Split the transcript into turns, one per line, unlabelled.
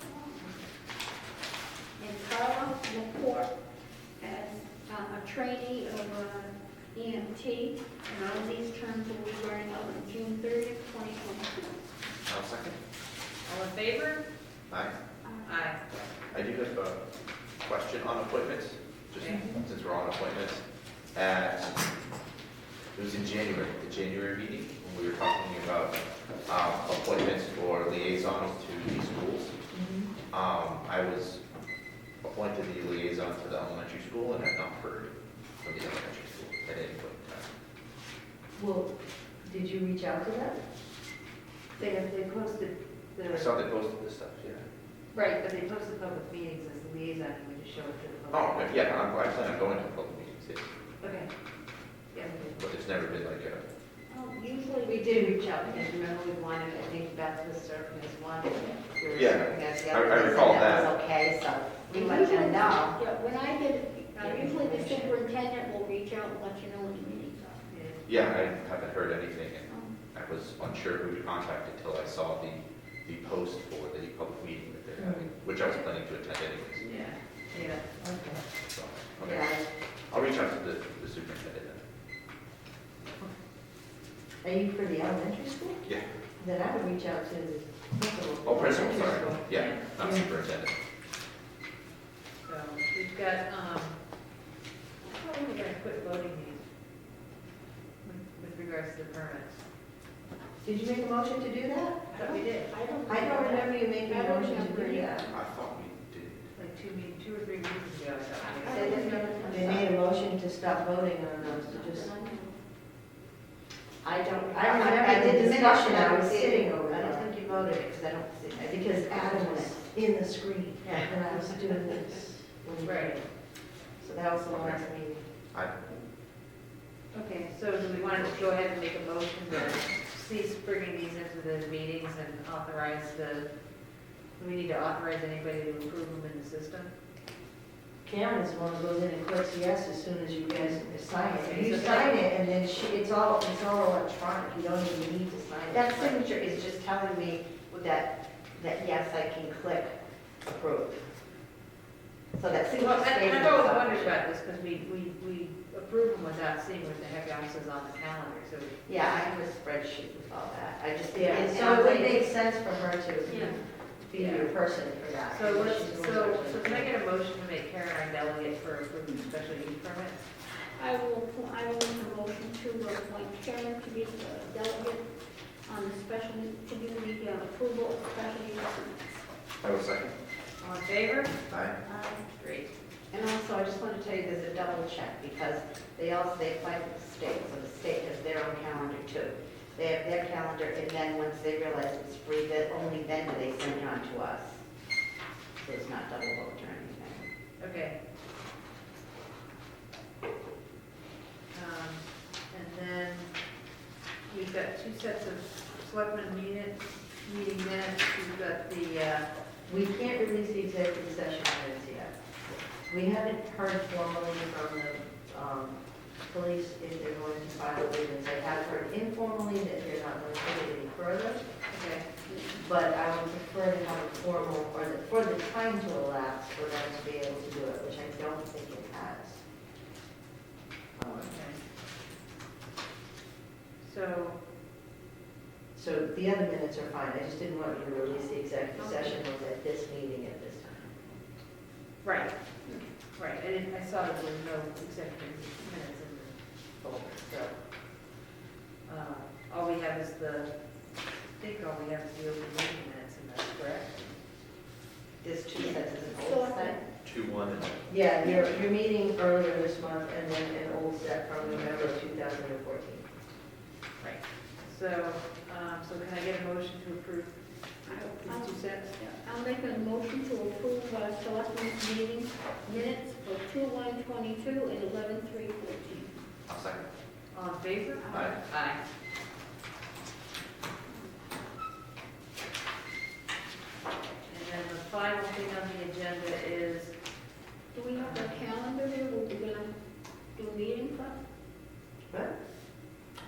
uh, E term, these terms will be running up on June thirtieth, twenty twenty-two.
I'll second.
All in favor?
Aye.
Aye.
I do have a question on appointments, just
Okay.
since we're on appointments. At, it was in January, the January meeting, when we were talking about um, appointments for liaisons to these schools.
Mm-hmm.
Um, I was appointed the liaison to the elementary school and have not heard from the elementary school at any point in time.
Well, did you reach out to them?
They have, they posted
I
the,
saw they posted this stuff, yeah.
right, but they posted public meetings as liaison, we just show it to the
Oh,
public.
okay, yeah, I'm, I plan on going to public meetings, yeah,
Okay. Yeah, we did.
but there's never been like a,
Um, Usually we
We did reach out, because remember we wanted, I think Beth was serving as one, and we were
Yeah.
serving as the
I-
other.
I
they said
recall
was okay, so we let
Usually-
them know.
Yeah, when I get, uh, usually the
Information.
superintendent will reach out and let you know when the meetings are.
yeah, I haven't heard anything, and
Um,
I was unsure who to contact until I saw the, the post for the public meeting that they're having, which I was planning to attend anyways.
Yeah.
Yeah.
Okay.
So, okay,
Yeah.
I'll reach out to the, the superintendent
Are you for the elementary school?
then. Yeah,
Then I would reach out to the principal.
oh, principal,
Elementary
sorry,
school.
yeah, not
Yeah.
superintendent.
So we've got, um, I thought we were gonna quit voting these with- with regards to the permits.
Did you make a motion to do that?
I thought we did.
I don't.
I don't remember you making
I
a
don't
motion to
remember.
do that.
I thought we did,
Like two, meet- two or three meetings ago, I thought. we
I
did.
don't remember.
They made a motion to stop voting on those, to just,
I don't, I
I don't
don't,
remember
I
the
did the
discussion,
discussion, I was sitting
over
over I
there.
don't think you voted, because I don't see, I think
because Adam was in the screen when I was doing this.
Right.
So that was the last meeting.
I,
Okay, so do we want to go ahead and make a motion to cease bringing these into the meetings and authorize the, do we need to authorize anybody to approve them in the system?
Cameron's the one who goes in and clicks yes as soon as you guys sign it. You sign it, and then she, it's all, it's all electronic, you don't even need to sign it.
That signature is just telling me that, that yes, I can click approve. So that signature
Well, and-
stays.
and
in
I've always
the
wondered
file.
about this, because we, we, we approve them without seeing what the heck else is on the calendar, so.
Yeah, I have a spreadsheet with all that. I just,
Yeah,
and
so it would
so
make sense for her to be your person for that.
So let's,
She's the
so,
one
so can I get a motion to make Karen our delegate for approving special use permits?
I will, I will make a motion to appoint Karen to be the delegate on the special, to do the uh, approval of special use.
I was second.
All in favor?
Aye.
Uh,
Great.
and also, I just want to tell you, there's a double check because they all, they apply to the state, so the state has their own calendar too. They have their calendar and then once they realize it's free, that only then do they send it on to us. So it's not double booked or anything.
Okay. Um, And then we've got two sets of selectmen minutes, meeting minutes. We've got the, uh,
We can't release the executive session minutes yet. We haven't heard formally from the um, police if they're going to file grievance. I have heard informally that they're not going to take it any further,
okay,
but I would prefer to have a formal, or the- for the time to elapse for them to be able to do it, which I don't think it has. Um,
oh, okay. So,
So the other minutes are fine, I just didn't want you to release the executive session was at this meeting at this time.
right, right, I didn't, I saw there were no executive minutes in the folder, so. uh, All we have is the, I think all we have is the open meeting minutes, and that's correct.
There's two sets, there's an
So,
old set.
Two, one, and
Yeah, your, your meeting earlier this month and then an old set from November 2014.
Right. So, um, so can I get a motion to approve
I'll-
these two sets?
I'll make a motion to approve uh, selectmen's meeting minutes for two one twenty-two and eleven three fourteen.
I'll second.
All in favor?
Aye.
Aye.